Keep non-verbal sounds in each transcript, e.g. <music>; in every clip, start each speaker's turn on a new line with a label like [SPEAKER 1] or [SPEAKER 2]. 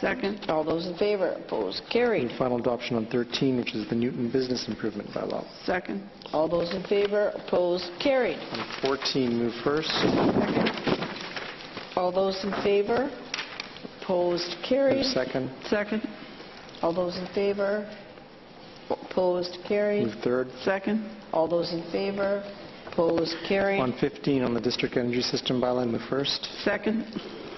[SPEAKER 1] Second.
[SPEAKER 2] All those in favor, opposed, carried.
[SPEAKER 3] Move final adoption on 13, which is the Newton Business Improvement Bylaw.
[SPEAKER 1] Second.
[SPEAKER 2] All those in favor, opposed, carried.
[SPEAKER 3] On 14, move first.
[SPEAKER 2] All those in favor, opposed, carried.
[SPEAKER 3] Move second.
[SPEAKER 1] Second.
[SPEAKER 2] All those in favor, opposed, carried.
[SPEAKER 3] Move third.
[SPEAKER 1] Second.
[SPEAKER 2] All those in favor, opposed,
[SPEAKER 3] On
[SPEAKER 2] carried.
[SPEAKER 3] 15, on the District Energy System Bylaw, move first.
[SPEAKER 1] Second.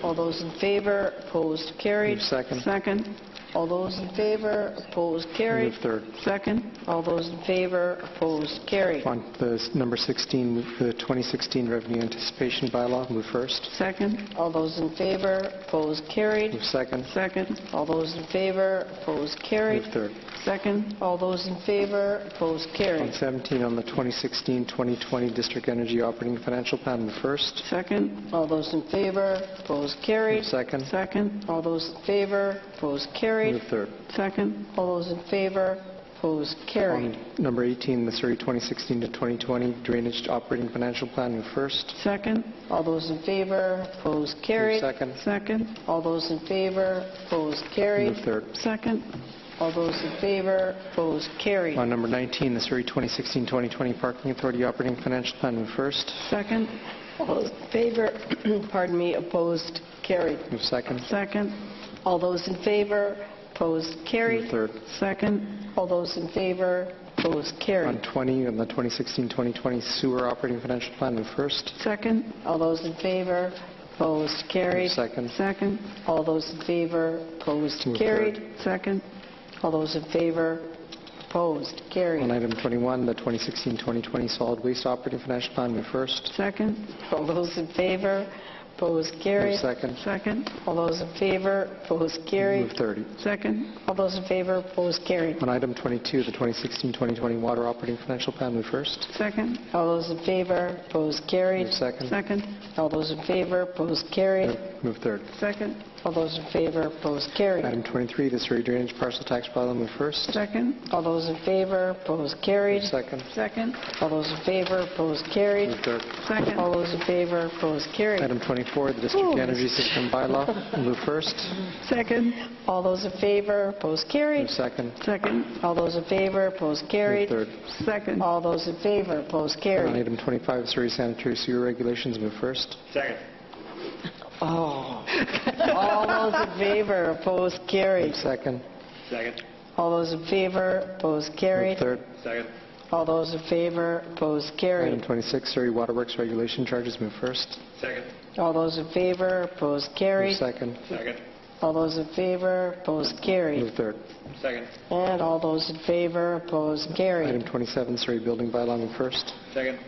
[SPEAKER 2] All those in favor, opposed, carried.
[SPEAKER 3] Move second.
[SPEAKER 1] Second.
[SPEAKER 2] All those in favor, opposed, carried.
[SPEAKER 3] Move third.
[SPEAKER 1] Second.
[SPEAKER 2] All those in favor, opposed, carried.
[SPEAKER 3] On the s- number 16, move the 2016 Revenue Anticipation Bylaw, move first.
[SPEAKER 1] Second.
[SPEAKER 2] All those in favor, opposed, carried.
[SPEAKER 3] Move second.
[SPEAKER 1] Second.
[SPEAKER 2] All those in favor, opposed, carried.
[SPEAKER 3] Move third.
[SPEAKER 1] Second.
[SPEAKER 2] All those in favor, opposed,
[SPEAKER 3] On
[SPEAKER 2] carried.
[SPEAKER 3] 17, on the 2016-2020 District Energy Operating Financial Plan, move first.
[SPEAKER 1] Second.
[SPEAKER 2] All those in favor, opposed,
[SPEAKER 3] Move
[SPEAKER 2] carried.
[SPEAKER 3] second.
[SPEAKER 1] Second.
[SPEAKER 2] All those in favor, opposed, carried.
[SPEAKER 3] Move third.
[SPEAKER 1] Second.
[SPEAKER 2] All those in favor, opposed, carried.
[SPEAKER 3] On number 18, the Surrey 2016-2020 Drainage Operating Financial Plan, move first.
[SPEAKER 1] Second.
[SPEAKER 2] All those in favor, opposed,
[SPEAKER 3] Move
[SPEAKER 2] carried.
[SPEAKER 3] second.
[SPEAKER 1] Second.
[SPEAKER 2] All those in favor, opposed, carried.
[SPEAKER 3] Move third.
[SPEAKER 1] Second.
[SPEAKER 2] All those in favor, opposed, carried.
[SPEAKER 3] On number 19, the Surrey 2016-2020 Parking Authority Operating Financial Plan, move first.
[SPEAKER 1] Second.
[SPEAKER 2] All those in favor, <clears throat> pardon me, opposed, carried.
[SPEAKER 3] Move second.
[SPEAKER 1] Second.
[SPEAKER 2] All those in favor, opposed,
[SPEAKER 3] Move
[SPEAKER 2] carried.
[SPEAKER 3] third.
[SPEAKER 1] Second.
[SPEAKER 2] All those in favor, opposed,
[SPEAKER 3] On
[SPEAKER 2] carried.
[SPEAKER 3] 20, on the 2016-2020 Sewer Operating Financial Plan, move first.
[SPEAKER 1] Second.
[SPEAKER 2] All those in favor, opposed,
[SPEAKER 3] Move
[SPEAKER 2] carried.
[SPEAKER 3] second.
[SPEAKER 1] Second.
[SPEAKER 2] All those in favor, opposed,
[SPEAKER 3] Move third.
[SPEAKER 2] carried.
[SPEAKER 1] Second.
[SPEAKER 2] All those in favor, opposed,
[SPEAKER 3] On
[SPEAKER 2] carried.
[SPEAKER 3] item 21, the 2016-2020 Solid Waste Operating Financial Plan, move first.
[SPEAKER 1] Second.
[SPEAKER 2] All those in favor, opposed,
[SPEAKER 3] Move
[SPEAKER 2] carried.
[SPEAKER 3] second.
[SPEAKER 1] Second.
[SPEAKER 2] All those in favor, opposed,
[SPEAKER 3] Move
[SPEAKER 2] carried.
[SPEAKER 3] 30.
[SPEAKER 1] Second.
[SPEAKER 2] All those in favor, opposed, carried.
[SPEAKER 3] On item 22, the 2016-2020 Water Operating Financial Plan, move first.
[SPEAKER 1] Second.
[SPEAKER 2] All those in favor, opposed, carried.
[SPEAKER 3] Move second.
[SPEAKER 1] Second.
[SPEAKER 2] All those in favor, opposed, carried.
[SPEAKER 3] Move third.
[SPEAKER 1] Second.
[SPEAKER 2] All those in favor, opposed, carried.
[SPEAKER 3] Item 23, the Surrey Drainage Parcel Tax Bylaw, move first.
[SPEAKER 1] Second.
[SPEAKER 2] All those in favor, opposed, carried.
[SPEAKER 3] Second.
[SPEAKER 1] Second.
[SPEAKER 2] All those in favor, opposed, carried.
[SPEAKER 3] Move third.
[SPEAKER 1] Second.
[SPEAKER 2] All those in favor, opposed, carried.
[SPEAKER 3] Item 24, the District Energy System Bylaw, move first.
[SPEAKER 1] Second.
[SPEAKER 2] All those in favor, opposed,
[SPEAKER 3] Move
[SPEAKER 2] carried.
[SPEAKER 3] second.
[SPEAKER 1] Second.
[SPEAKER 2] All those in favor, opposed,
[SPEAKER 3] Move
[SPEAKER 2] carried.
[SPEAKER 3] third.
[SPEAKER 1] Second.
[SPEAKER 2] All those in favor, opposed,
[SPEAKER 3] On
[SPEAKER 2] carried.
[SPEAKER 3] item 25, Surrey Sanitary Sewer Regulations, move first.
[SPEAKER 4] Second.
[SPEAKER 2] Oh. All those in favor, opposed, carried.
[SPEAKER 3] Move second.
[SPEAKER 4] Second.
[SPEAKER 2] All those in favor, opposed,
[SPEAKER 3] Move
[SPEAKER 2] carried.
[SPEAKER 3] third.
[SPEAKER 4] Second.
[SPEAKER 2] All those in favor, opposed,
[SPEAKER 3] Item
[SPEAKER 2] carried.
[SPEAKER 3] 26, Surrey Water Works Regulation Charges, move first.
[SPEAKER 4] Second.
[SPEAKER 2] All those in favor, opposed,
[SPEAKER 3] Move
[SPEAKER 2] carried.
[SPEAKER 3] second.
[SPEAKER 4] Second.
[SPEAKER 2] All those in favor, opposed, carried.
[SPEAKER 3] Move third.
[SPEAKER 4] Second.
[SPEAKER 2] And all those in favor, opposed,
[SPEAKER 3] Item
[SPEAKER 2] carried.
[SPEAKER 3] 27, Surrey Building Bylaw, move first.
[SPEAKER 4] Second.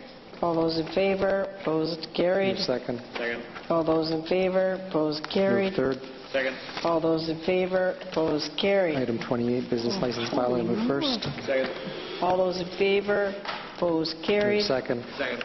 [SPEAKER 2] All those in favor, opposed, carried.
[SPEAKER 3] Move second.
[SPEAKER 4] Second.
[SPEAKER 2] All those in favor, opposed,
[SPEAKER 3] Move
[SPEAKER 2] carried.
[SPEAKER 3] third.
[SPEAKER 4] Second.
[SPEAKER 2] All those in favor, opposed, carried.
[SPEAKER 3] Item 28, Business License Bylaw, move first.
[SPEAKER 4] Second.
[SPEAKER 2] All those in favor, opposed,
[SPEAKER 3] Move
[SPEAKER 2] carried.
[SPEAKER 3] second.
[SPEAKER 4] Second.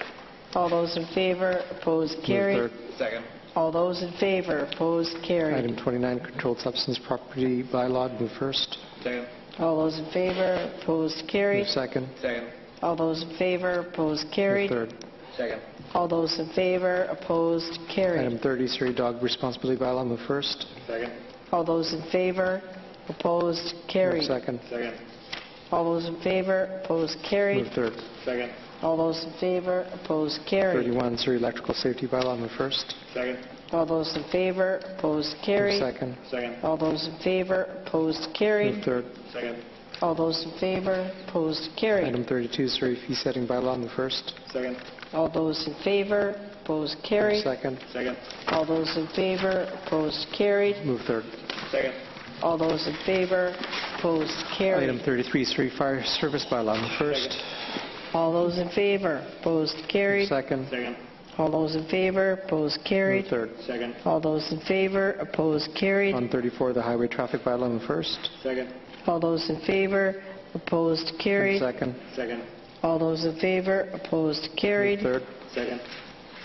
[SPEAKER 2] All those in favor, opposed,
[SPEAKER 3] Move
[SPEAKER 2] carried.
[SPEAKER 3] third.
[SPEAKER 4] Second.
[SPEAKER 2] All those in favor, opposed, carried.
[SPEAKER 3] Item 29, Controlled Substance Property Bylaw, move first.
[SPEAKER 4] Second.
[SPEAKER 2] All those in favor, opposed,
[SPEAKER 3] Move
[SPEAKER 2] carried.
[SPEAKER 3] second.
[SPEAKER 4] Second.
[SPEAKER 2] All those in favor, opposed,
[SPEAKER 3] Move
[SPEAKER 2] carried.
[SPEAKER 3] third.
[SPEAKER 4] Second.
[SPEAKER 2] All those in favor, opposed, carried.
[SPEAKER 3] Item 30, Surrey Dog Responsibility Bylaw, move first.
[SPEAKER 4] Second.
[SPEAKER 2] All those in favor, opposed,
[SPEAKER 3] Move
[SPEAKER 2] carried.
[SPEAKER 3] second.
[SPEAKER 4] Second.
[SPEAKER 2] All those in favor, opposed,
[SPEAKER 3] Move
[SPEAKER 2] carried.
[SPEAKER 3] third.
[SPEAKER 4] Second.
[SPEAKER 2] All those in favor, opposed, carried.
[SPEAKER 3] 31, Surrey Electrical Safety Bylaw, move first.
[SPEAKER 4] Second.
[SPEAKER 2] All those in favor, opposed,
[SPEAKER 3] Move
[SPEAKER 2] carried.
[SPEAKER 3] second.
[SPEAKER 4] Second.
[SPEAKER 2] All those in favor, opposed,
[SPEAKER 3] Move
[SPEAKER 2] carried.
[SPEAKER 3] third.
[SPEAKER 4] Second.
[SPEAKER 2] All those in favor, opposed, carried.
[SPEAKER 3] Item 32, Surrey Fee Setting Bylaw, move first.
[SPEAKER 4] Second.
[SPEAKER 2] All those in favor, opposed,
[SPEAKER 3] Move
[SPEAKER 2] carried.
[SPEAKER 3] second.
[SPEAKER 4] Second.
[SPEAKER 2] All those in favor, opposed, carried.
[SPEAKER 3] Move third.
[SPEAKER 4] Second.
[SPEAKER 2] All those in favor, opposed,
[SPEAKER 3] Item
[SPEAKER 2] carried.
[SPEAKER 3] 33, Surrey Fire Service Bylaw, move first.
[SPEAKER 2] All those in favor, opposed,
[SPEAKER 3] Move
[SPEAKER 2] carried.
[SPEAKER 3] second.
[SPEAKER 4] Second.
[SPEAKER 2] All those in favor, opposed,
[SPEAKER 3] Move
[SPEAKER 2] carried.
[SPEAKER 3] third.
[SPEAKER 4] Second.
[SPEAKER 2] All those in favor, opposed, carried.
[SPEAKER 3] On 34, the Highway Traffic Bylaw, move first.
[SPEAKER 4] Second.
[SPEAKER 2] All those in favor, opposed,
[SPEAKER 3] Move
[SPEAKER 2] carried.
[SPEAKER 3] second.
[SPEAKER 4] Second.
[SPEAKER 2] All those in favor, opposed,
[SPEAKER 3] Move
[SPEAKER 2] carried.
[SPEAKER 3] third.
[SPEAKER 4] Second.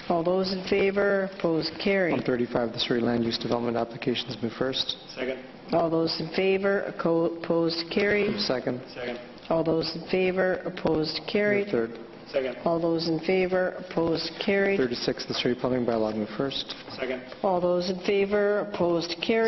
[SPEAKER 2] All those in favor, opposed,
[SPEAKER 3] On
[SPEAKER 2] carried.
[SPEAKER 3] 35, the Surrey Land Use Development Applications, move first.
[SPEAKER 4] Second.
[SPEAKER 2] All those in favor, aco- opposed, carried.
[SPEAKER 3] Move second.
[SPEAKER 4] Second.
[SPEAKER 2] All those in favor, opposed,
[SPEAKER 3] Move
[SPEAKER 2] carried.
[SPEAKER 3] third.
[SPEAKER 4] Second.
[SPEAKER 2] All those in favor, opposed, carried.
[SPEAKER 3] 36, the Surrey Plumbing Bylaw, move first.
[SPEAKER 4] Second.
[SPEAKER 2] All those in favor, opposed, carried.